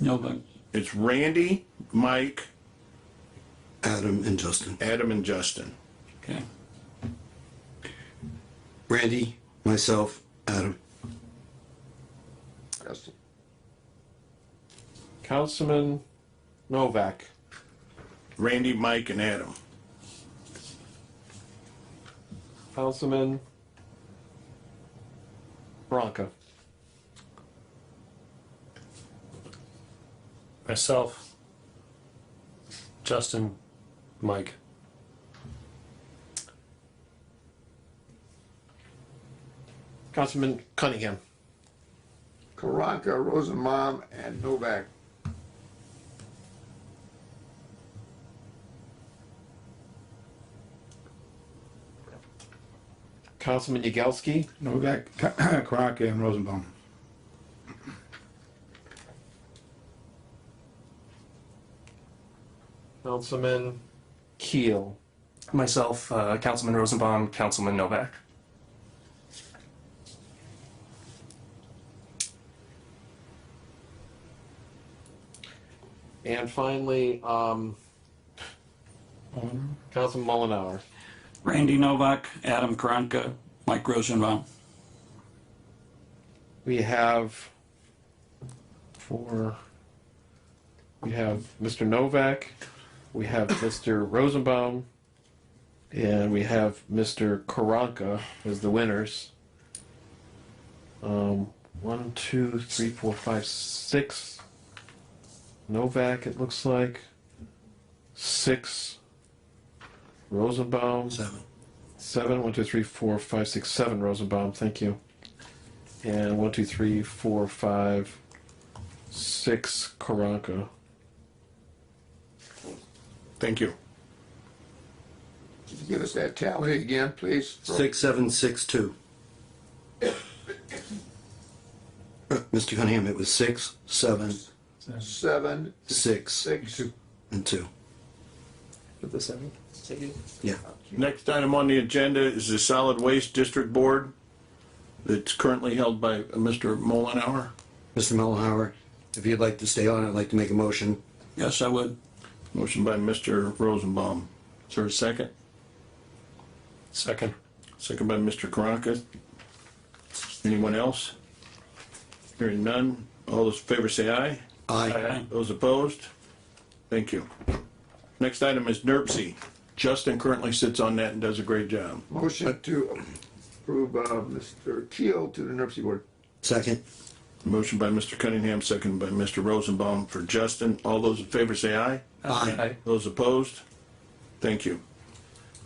No vote. It's Randy, Mike, Adam and Justin. Adam, and Justin. Okay. Randy, myself, Adam. Justin. Councilman Novak. Randy, Mike, and Adam. Councilman Bronca. Myself, Justin, Mike. Councilman Cunningham. Karanka, Rosenbaum, and Novak. Councilman Yagelski. Novak, Karanka, and Rosenbaum. Councilman Keel. Myself, uh, Councilman Rosenbaum, Councilman Novak. And finally, um, Councilman Mullenhour. Randy Novak, Adam Karanka, Mike Rosenbaum. We have four. We have Mr. Novak. We have Mr. Rosenbaum. And we have Mr. Karanka as the winners. Um, one, two, three, four, five, six. Novak, it looks like. Six. Rosenbaum. Seven. Seven, one, two, three, four, five, six, seven, Rosenbaum, thank you. And one, two, three, four, five, six, Karanka. Thank you. Could you Give us that tally again, please. Six, seven, six, two. Uh, Mr. Cunningham, it was six, seven, Seven, six, six. and two. The seven. Yeah. Next item on the agenda is the Solid Waste District Board that's currently held by Mr. Mullenhour. Mr. Mellenhour, if you'd like to stay on, I'd like to make a motion. Yes, I would. Motion by Mr. Rosenbaum. Is there a second? Second. Second by Mr. Karanka. Anyone else? Hearing none. All those in favor say aye. Aye. Those opposed? Thank you. Next item is NERC. Justin currently sits on that and does a great job. Motion to approve, uh, Mr. Keel to the NERC board. Second. Motion by Mr. Cunningham, second by Mr. Rosenbaum for Justin. All those in favor say aye. Aye. Those opposed? Thank you.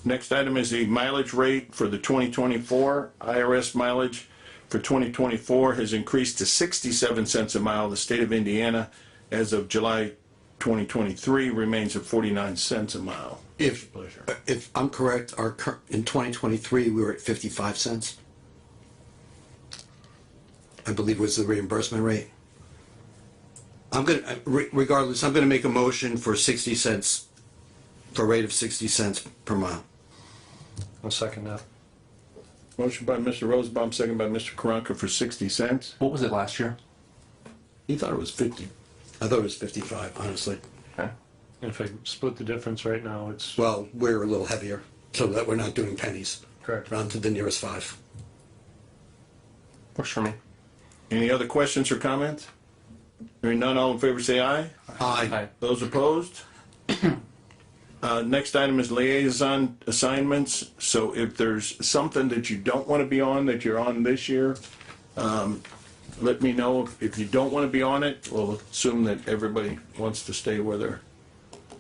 Next item is the mileage rate for the 2024. IRS mileage for 2024 has increased to 67 cents a mile. The state of Indiana, as of July 2023, remains at 49 cents a mile. If, Pleasure. if I'm correct, our, cur- in 2023, we were at 55 cents. I believe was the reimbursement rate. I'm gonna, I- re- regardless, I'm gonna make a motion for 60 cents, for a rate of 60 cents per mile. I'll second that. Motion by Mr. Rosenbaum, second by Mr. Karanka for 60 cents. What was it last year? He thought it was 50. I thought it was 55, honestly. If I split the difference right now, it's Well, we're a little heavier, so that we're not doing pennies. Correct. Round to the nearest five. Works for me. Any other questions or comments? Hearing none, all in favor say aye. Aye. Those opposed? Uh, Next item is liaison assignments. So if there's something that you don't want to be on, that you're on this year, um, let me know. If- If you don't want to be on it, we'll assume that everybody wants to stay where they're,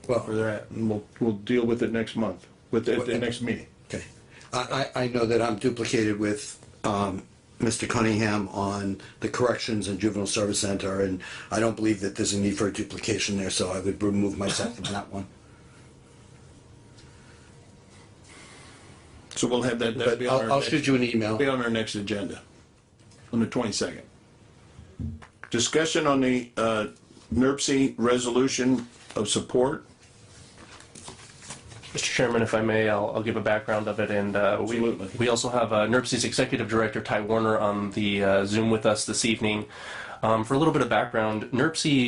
where Well, they're at. And we'll, we'll deal with it next month, with, at the next meeting. okay. I, I, I know that I'm duplicated with, um, Mr. Cunningham on the corrections and juvenile service center, and I don't believe that there's a need for a duplication there, so I would remove myself from that one. So we'll have that, that'll But be on I'll, our I'll next. shoot you an email. be on our next agenda, on the 22nd. Discussion on the uh, NERC resolution of support. Mr. Chairman, if I may, I'll, I'll give a background of it, and uh, we Absolutely. we also have uh, NERC's executive director Um, Ty Warner on the uh, Zoom with us this evening. Um, for a little bit of background, NERC